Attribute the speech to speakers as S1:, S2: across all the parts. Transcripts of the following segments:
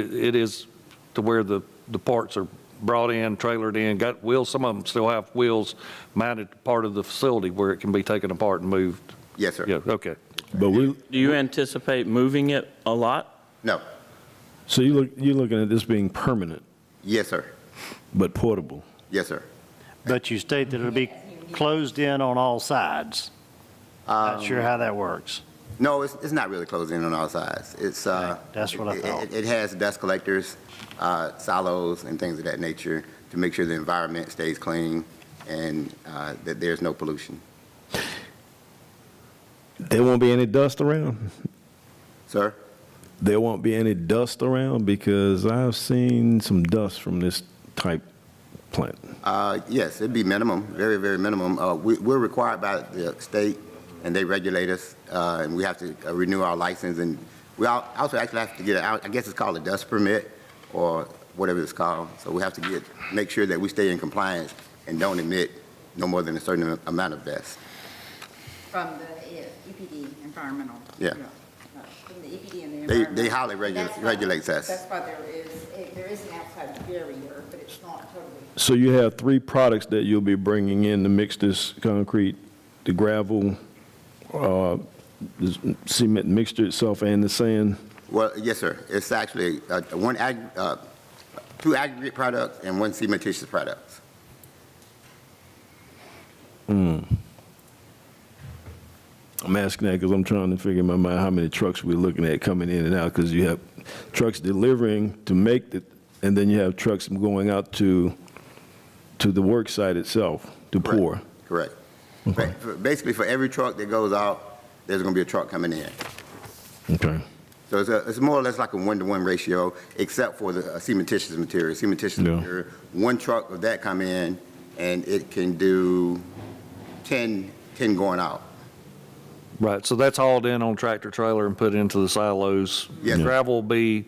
S1: It is to where the, the parts are brought in, trailered in, got wheels, some of them still have wheels mounted to part of the facility where it can be taken apart and moved.
S2: Yes, sir.
S1: Yeah, okay.
S3: But we,
S4: Do you anticipate moving it a lot?
S2: No.
S3: so you look, you're looking at this being permanent,
S2: Yes, sir.
S3: but portable.
S2: Yes, sir.
S5: But you state that it'll be closed in on all sides. Not sure how that works.
S2: No, it's, it's not really closed in on all sides. It's, uh.
S5: Okay, that's what I
S2: it-
S5: thought.
S2: It, it has dust collectors, uh, silos and things of that nature to make sure the environment stays clean and, uh, that there's no pollution.
S3: There won't be any dust around.
S2: Sir?
S3: There won't be any dust around because I've seen some dust from this type plant.
S2: Uh, yes, it'd be minimum, very, very minimum. Uh, we, we're required by the state and they regulate us, uh, and we have to uh, renew our license and we al- also actually have to get, a- I guess it's called a dust permit or whatever it's called. So we have to get, make sure that we stay in compliance and don't emit no more than a certain amount of dust.
S6: From the E, yeah, EPD, environmental.
S2: Yeah.
S6: no, From the EPD and the
S2: They,
S6: environmental.
S2: they highly regu-
S6: That's why-
S2: regulates us.
S6: That's why there is, eh, there is an outside barrier, but it's not totally.
S3: So you have three products that you'll be bringing in to mix this concrete, the gravel, uh, this cement mixture itself and the sand.
S2: Well, yes, sir. It's actually, uh, one ag, uh, two aggregate products and one cementitious product.
S3: I'm asking that because I'm trying to figure in my mind how many trucks we're looking at coming in and out because you have trucks delivering to make the, and then you have trucks going out to, to the work site itself to
S2: Correct.
S3: pour.
S2: Correct. Ba- for- Basically, for every truck that goes out, there's going to be a truck coming in.
S3: Okay.
S2: So it's, a- it's more or less like a one-to-one ratio, except for the uh, cementitious material. Cementitious
S3: Yeah.
S2: material, one truck of that come in, and it can do 10, 10 going out.
S1: Right, so that's hauled in on tractor trailer and put into the silos.
S2: Yes, sir.
S1: Gravel will be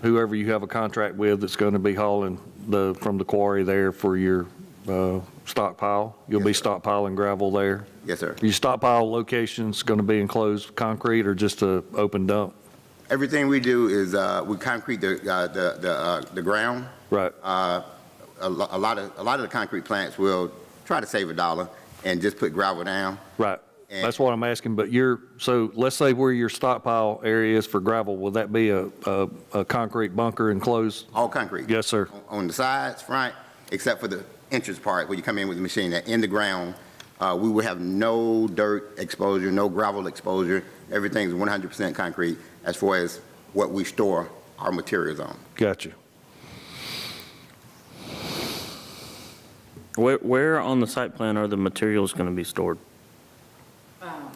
S1: whoever you have a contract with that's going to be hauling the, from the quarry there for your uh, stockpile. You'll be
S2: Yes, sir.
S1: stockpiling gravel there.
S2: Yes, sir.
S1: Your stockpile location's going to be enclosed concrete or just a open dump?
S2: Everything we do is, uh, we concrete the, uh, the, the, uh, the ground.
S1: Right.
S2: Uh, A lo- a lot of, a lot of the concrete plants will try to save a dollar and just put gravel down.
S1: Right.
S2: And-
S1: That's what I'm asking, but you're, so let's say where your stockpile area is for gravel, will that be a, a, a concrete bunker enclosed?
S2: All concrete.
S1: Yes, sir.
S2: On- On the sides, front, except for the entrance part where you come in with the machine, that in the ground, uh, we will have no dirt exposure, no gravel exposure. Everything's 100% concrete as far as what we store our materials on.
S1: Gotcha.
S4: Where, where on the site plan are the materials going to be stored?
S6: um,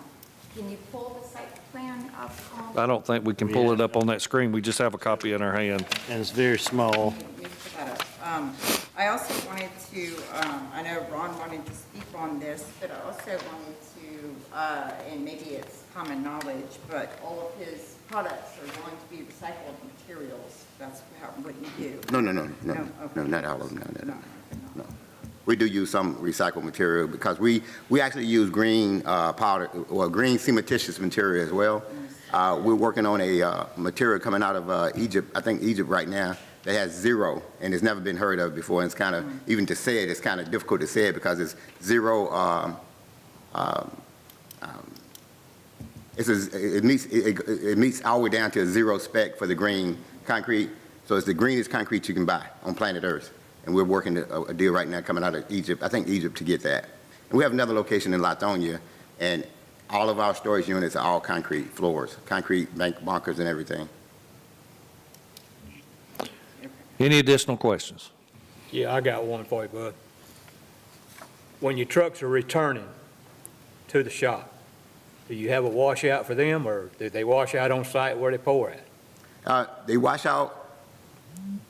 S6: Can you pull the site plan up? on-
S1: I don't think we can pull it up on that screen. We just have a copy in our hand.
S5: And it's very small.
S6: We can put that up. Um, I also wanted to, um, I know Ron wanted to speak on this, but I also wanted to, uh, and maybe it's common knowledge, but all of his products are going to be recycled materials. That's how- what you do.
S2: No, no, no, no,
S6: No,
S2: no,
S6: Oh, okay.
S2: not all of them, no, no, no.
S6: No.
S2: We do use some recycled material because we, we actually use green uh, powder, well, green cementitious material as well. Uh, We're working on a uh, material coming out of uh, Egypt, I think Egypt right now, that has zero and it's never been heard of before. And it's kind of, even to say it, it's kind of difficult to say it because it's zero, um, um, um, it's a, it meets, it it- it meets all the way down to a zero spec for the green concrete. So it's the greenest concrete you can buy on planet Earth. And we're working a a deal right now coming out of Egypt, I think Egypt, to get that. And we have another location in Latonia, and all of our storage units are all concrete floors, concrete bank bunkers and everything.
S1: Any additional questions?
S7: Yeah, I got one for you, bud. When your trucks are returning to the shop, do you have a washout for them, or do they wash out on site where they pour at?
S2: Uh, They wash out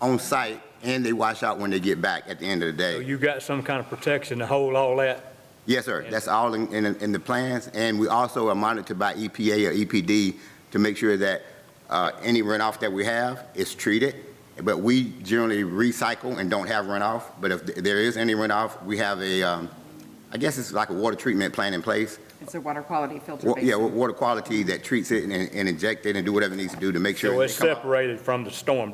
S2: on site, and they wash out when they get back at the end of the
S7: So
S2: day.
S7: you got some kind of protection to hold all that?
S2: Yes, sir. That's all in, in, in the plans, and we also are monitored by EPA or EPD to make sure that, uh, any runoff that we have is treated. But we generally recycle and don't have runoff, but if there is any runoff, we have a, um, I guess it's like a water treatment plan in place
S6: It's a water quality filter
S2: Wa-
S6: basin.
S2: Yeah, wa- water quality that treats it and and inject it and do whatever it needs to do to make sure.
S7: So
S2: it
S7: it's
S2: come out.
S7: separated from the storm